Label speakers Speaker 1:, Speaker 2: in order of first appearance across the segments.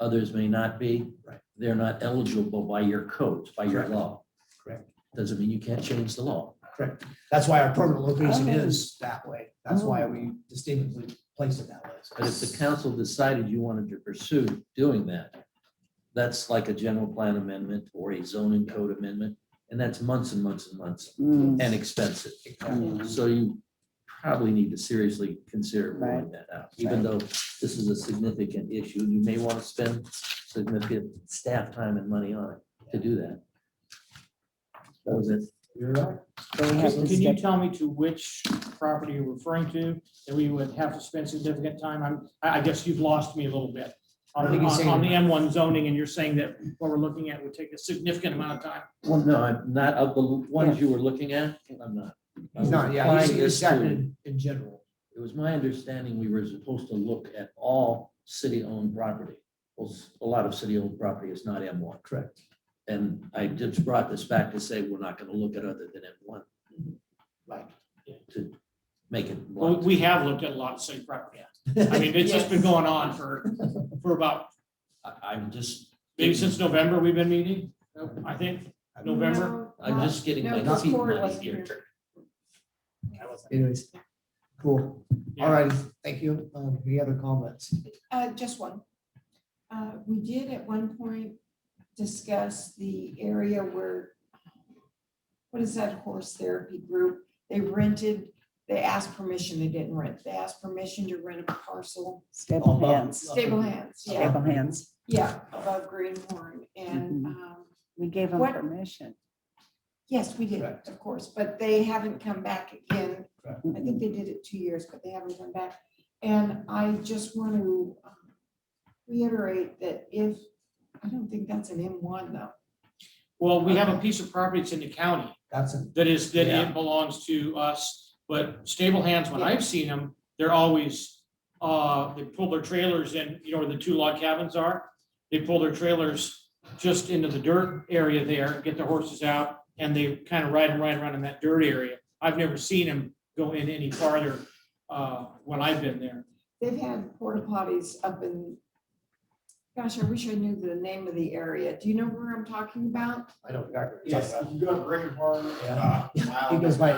Speaker 1: others may not be.
Speaker 2: Right.
Speaker 1: They're not eligible by your codes, by your
Speaker 2: Correct.
Speaker 1: law.
Speaker 2: Correct.
Speaker 1: Doesn't mean you can't change the law.
Speaker 2: That's why our permanent location
Speaker 1: Oh.
Speaker 2: is that way. That's why we distinctly place it that way.
Speaker 1: But if the council decided you wanted to pursue doing that, that's like a general plan amendment or a zoning code amendment, and that's months and months and months
Speaker 3: Mm,
Speaker 1: and expensive.
Speaker 3: Yeah.
Speaker 2: Mm-hmm.
Speaker 1: So you probably need to seriously consider rolling that out, even though this is a significant issue. You may want to spend significant staff time and money on it to do that. That was it.
Speaker 2: You're right.
Speaker 3: so we have
Speaker 4: Can
Speaker 3: to
Speaker 4: you
Speaker 3: step-
Speaker 4: tell me to which property you're referring to, that we would have to spend significant time on? I, I guess you've lost me a little bit
Speaker 2: I
Speaker 4: on the,
Speaker 2: think he's
Speaker 4: on
Speaker 2: saying-
Speaker 4: on the M one zoning, and you're saying that what we're looking at would take a significant amount of time.
Speaker 1: Well, no, I'm not of the ones you were looking at. I'm not. I was
Speaker 2: He's not, yeah, he's,
Speaker 1: applying this
Speaker 2: he's acting
Speaker 1: to-
Speaker 2: in- in general.
Speaker 1: It was my understanding we were supposed to look at all city-owned property. Well, s- a lot of city-owned property is not M one.
Speaker 2: Correct.
Speaker 1: And I just brought this back to say we're not gonna look at other than M one
Speaker 2: Right.
Speaker 1: to make it
Speaker 4: Well,
Speaker 1: blunt.
Speaker 4: we have looked at a lot of city property. I mean, it's just been going on for, for about,
Speaker 1: I- I'm just,
Speaker 4: maybe since November we've been meeting, I think, November.
Speaker 1: I'm just getting
Speaker 5: No, uh,
Speaker 1: my
Speaker 5: this
Speaker 1: feet
Speaker 5: board
Speaker 1: muddy
Speaker 5: wasn't
Speaker 1: here.
Speaker 2: Anyways, cool. All right, thank you. Um, any other comments?
Speaker 5: Uh, just one. Uh, we did at one point discuss the area where, what is that horse therapy group? They rented, they asked permission, they didn't rent, they asked permission to rent a parcel.
Speaker 3: stable hands,
Speaker 5: Stable hands, yeah,
Speaker 3: stable hands.
Speaker 5: yeah, above Greenhorn and,
Speaker 3: Mhm.
Speaker 5: um,
Speaker 3: We gave them
Speaker 5: What-
Speaker 3: permission.
Speaker 5: yes, we did,
Speaker 2: Correct.
Speaker 5: of course, but they haven't come back again I
Speaker 3: Mhm.
Speaker 5: think they did it two years, but they haven't come back. And I just want to um, reiterate that if, I don't think that's an M one though.
Speaker 4: Well, we have a piece of property that's in the county
Speaker 2: That's it.
Speaker 4: that is, that
Speaker 2: Yeah.
Speaker 4: it belongs to us. But stable hands, when I've seen them, they're always, uh, they pull their trailers in, you know, where the two log cabins are. They pull their trailers just into the dirt area there, get their horses out, and they kind of ride and ride around in that dirt area. I've never seen them go in any farther, uh, when I've been there.
Speaker 5: They've had porta potties up in, gosh, I wish I knew the name of the area. Do you know where I'm talking about?
Speaker 2: I don't. remember.
Speaker 6: Yes, you can go to Brick and Barn.
Speaker 2: Yeah. He
Speaker 6: It
Speaker 2: goes by-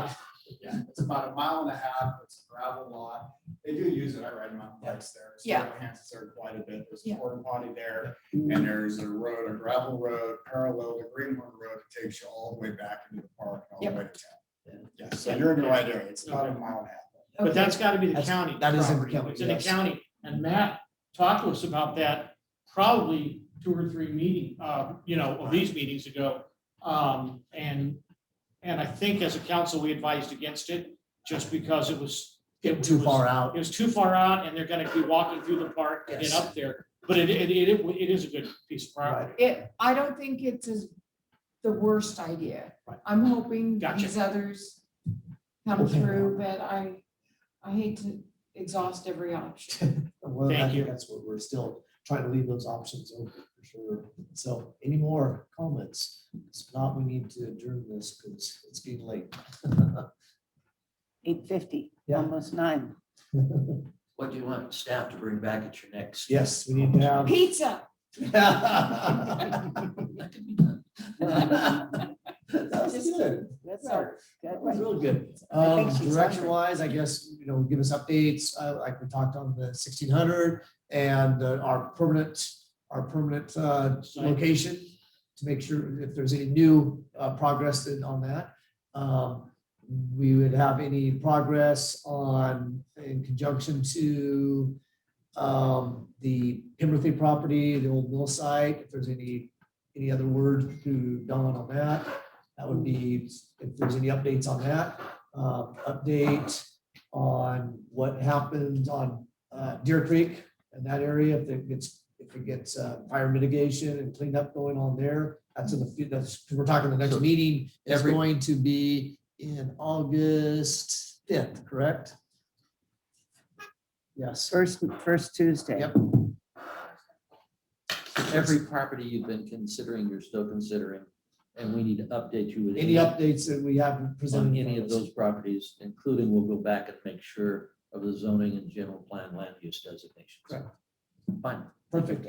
Speaker 6: Yeah, it's about a mile and a half, it's a gravel lot, they do use it, I ride mountain bikes there. so
Speaker 5: Yeah.
Speaker 6: it enhances there quite a bit, there's
Speaker 5: Yeah.
Speaker 6: a porta potty there,
Speaker 3: Mm.
Speaker 6: and there's a road, a gravel road, parallel to Greenhorn Road, it takes you all the way back into the park, and all
Speaker 5: Yep.
Speaker 6: the way to town. Yeah, so
Speaker 4: Yeah.
Speaker 6: you're in the right area, it's about a
Speaker 4: Okay.
Speaker 6: mile and a half.
Speaker 4: But
Speaker 5: Okay.
Speaker 4: that's gotta be the
Speaker 2: That's-
Speaker 4: county.
Speaker 2: that is in the
Speaker 4: property.
Speaker 2: county,
Speaker 4: It's in the
Speaker 2: yes.
Speaker 4: county, and Matt talked to us about that probably two or three meeting, uh, you know, of these meetings ago. Um, and, and I think as a council, we advised against it just because it was.
Speaker 2: Get too far out.
Speaker 4: It was too far out and they're gonna be walking through the park and get
Speaker 2: Yes.
Speaker 4: up there, but it, it, it, it is a good piece of property.
Speaker 5: It, I don't think it's as the worst idea.
Speaker 2: Right.
Speaker 5: I'm hoping
Speaker 4: Gotcha.
Speaker 5: these others come
Speaker 2: Okay.
Speaker 5: through, but I, I hate to exhaust every option.
Speaker 2: Well, I
Speaker 4: Thank
Speaker 2: think
Speaker 4: you.
Speaker 2: that's what we're still trying to leave those options open for sure. So any more comments? If not, we need to adjourn this because it's getting late.
Speaker 3: Eight fifty,
Speaker 2: Yeah.
Speaker 3: almost nine.
Speaker 1: What do you want staff to bring back at your next?
Speaker 2: Yes, we need to have.
Speaker 5: Pizza.
Speaker 2: That
Speaker 1: That could be done.
Speaker 2: was good.
Speaker 3: That's
Speaker 2: Yeah.
Speaker 3: our,
Speaker 2: That
Speaker 3: good
Speaker 2: was
Speaker 3: one.
Speaker 2: real good.
Speaker 3: I think
Speaker 2: Um,
Speaker 3: she's
Speaker 2: direction
Speaker 3: hungry.
Speaker 2: wise, I guess, you know, give us updates, uh, like we talked on the sixteen hundred and uh, our permanent, our permanent, uh,
Speaker 4: Site.
Speaker 2: location to make sure if there's any new, uh, progress in- on that. Um, we would have any progress on, in conjunction to, um, the Pemberthy property, the old mill site, if there's any, any other word to Don on that. That would be, if there's any updates on that, uh, update on what happened on, uh, Deer Creek and that area, if it gets, if it gets, uh, fire mitigation and cleanup going on there. That's in the, fu- that's, we're talking the next
Speaker 1: So
Speaker 2: meeting, it's
Speaker 1: every-
Speaker 2: going to be in August fifth, correct? Yes.
Speaker 3: First, first Tuesday.
Speaker 2: Yep.
Speaker 1: Every property you've been considering, you're still considering, and we need to update you with.
Speaker 2: Any updates that we haven't
Speaker 1: on
Speaker 2: presented?
Speaker 1: any of those properties, including we'll go back and make sure of the zoning and general plan land use designations.
Speaker 2: Correct.
Speaker 1: Fine.
Speaker 2: Perfect.